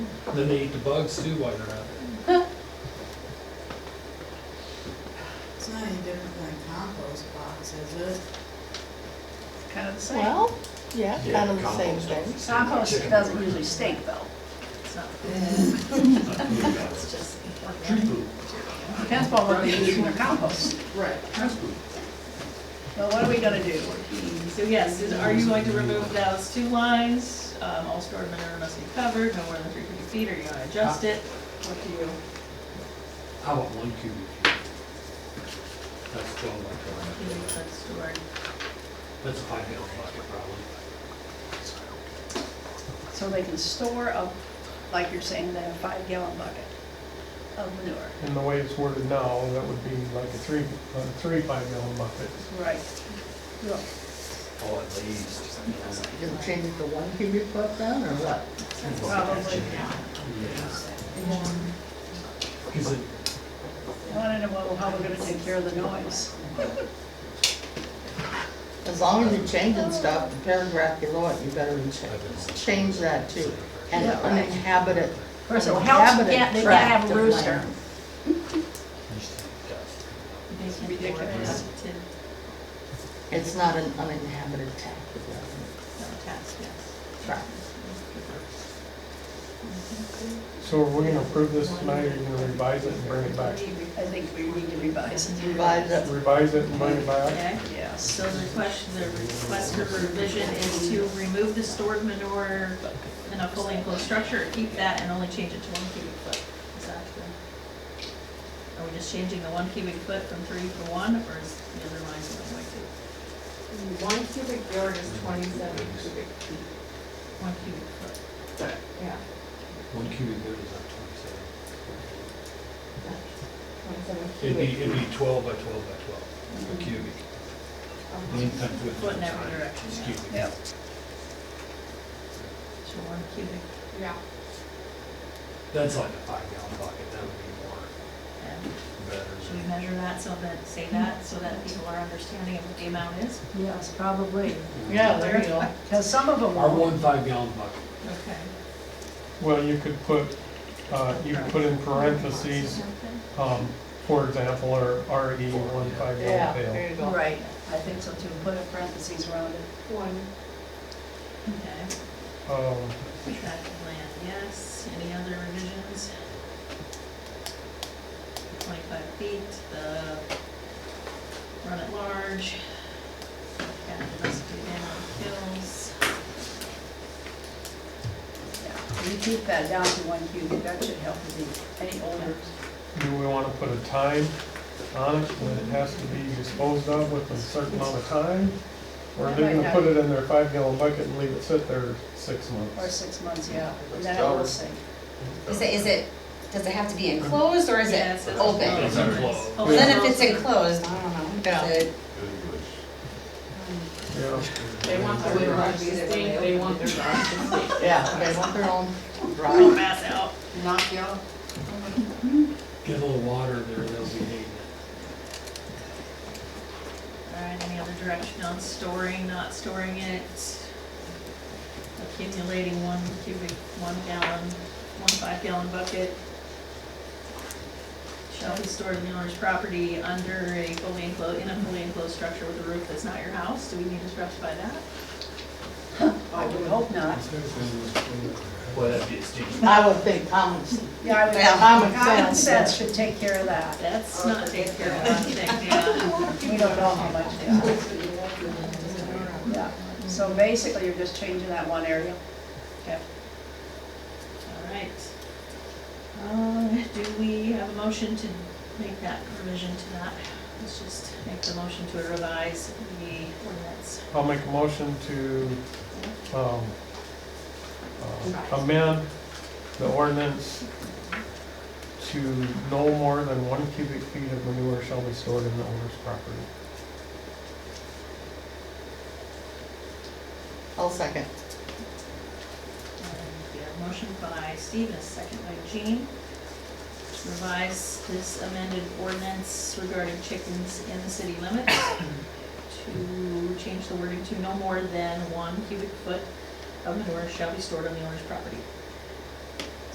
Then they eat the bugs too while they're out there. It's not any different than compost box, is it? It's kind of the same. Well, yeah, kind of the same compost. thing. Compost doesn't usually stink though, so it's just, Tree poop, depends upon what they use in their compost. Right. trash poop. So what are we gonna do? So yes, is, are you going to remove those two lines? Um, all stored manure must be covered, no more than three cubic feet, or you gonna adjust it? What do you? How about one cubic feet? That's still like, think a- that's stored? that's a five gallon bucket probably. So they can store a, like you're saying, then a five gallon bucket of manure. In the way it's worded now, that would be like a three, a three five gallon bucket. Right. Look, Oh, at least. You'll change it to one cubic foot then, or what? Probably. Cause it, I wanna know well, how we're gonna take care of the noise. As long as you're changing stuff, the paragraph below it, you better cha- change that too. And Yeah, right. uninhabited. Of course, it helps, uninhabited yeah, they gotta have tract a of rooster. land. It's ridiculous. It's not an uninhabited tract of land. tract. So are we gonna approve this tonight, or are you gonna revise it and bring it I back? think we need to revise it. Revise it. Revise it and bring it back? Okay, Yes. so the question, the request for revision is to remove the stored manure in a fully enclosed structure, or keep that and only change it to one cubic foot. Is that the- Are we just changing the one cubic foot from three to one, or is the other line something like two? One cubic yard is twenty-seven cubic feet. One cubic foot. Yeah, One cubic foot is like twenty-seven. twenty-seven it'd cubic. be, it'd be twelve by twelve by twelve, a cubic. feet. Mean times width Foot in times every height. direction, It's yeah. cubic. Yeah. So one cubic, Yeah, That's like a five gallon bucket, that would be more and should we better. measure that so that, say that, so that people are understanding of what the amount is? Yes, probably. Yeah, there you go. Because some of them Our won't. one five gallon bucket. Okay. Well, you could put, uh, you could put in parentheses, um, for example, or RE one five Yeah, gallon pail. there you go. Right, I think so too. Put a parentheses around it. one. Okay. Um, Tract of land, yes. Any other revisions? Twenty-five feet, the run at large, cat domestic animal kills. Yeah. You keep that down to one cubic, that should help with the, any older. do we wanna put a time on it, when it has to be disposed of within a certain amount of time? Or are they gonna put it in their five gallon bucket and leave it sit there six Or months? six months, yeah. And Then I will say, Is it, is it, does it have to be enclosed or is Yeah, it says open? It's enclosed. Oh, Well, Then if it's also- enclosed, I don't know. Yeah. Is it- Yeah. They want their garage to stink, they want their garage to stink. Yeah, they want their own Don't drive. Pass out. Knock you out. Get a little water there, they'll be hating it. All right, any other direction on storing, not storing it? Accumulating one cubic, one gallon, one five gallon bucket. Shall be stored in the owner's property under a fully enclosed, in a fully enclosed structure with a roof that's not your house. Do we need to specify that? I would hope not. Well, that'd be a stinky. I would think um, common, Yeah, I common would, common sense. sense should take care of that. That's not taken care of, I think, yeah. We don't know how much they are. Yeah, so basically, you're just changing that one area. All right. Um, do we have a motion to make that revision to that? Let's just make the motion to revise the ordinance. I'll make a motion to um, uh, amend the ordinance to no more than one cubic feet of manure shall be stored in the owner's property. I'll second. And we have a motion by Steve and a second by Jean to revise this amended ordinance regarding chickens in the city limits to change the wording to no more than one cubic foot of manure shall be stored on the owner's property.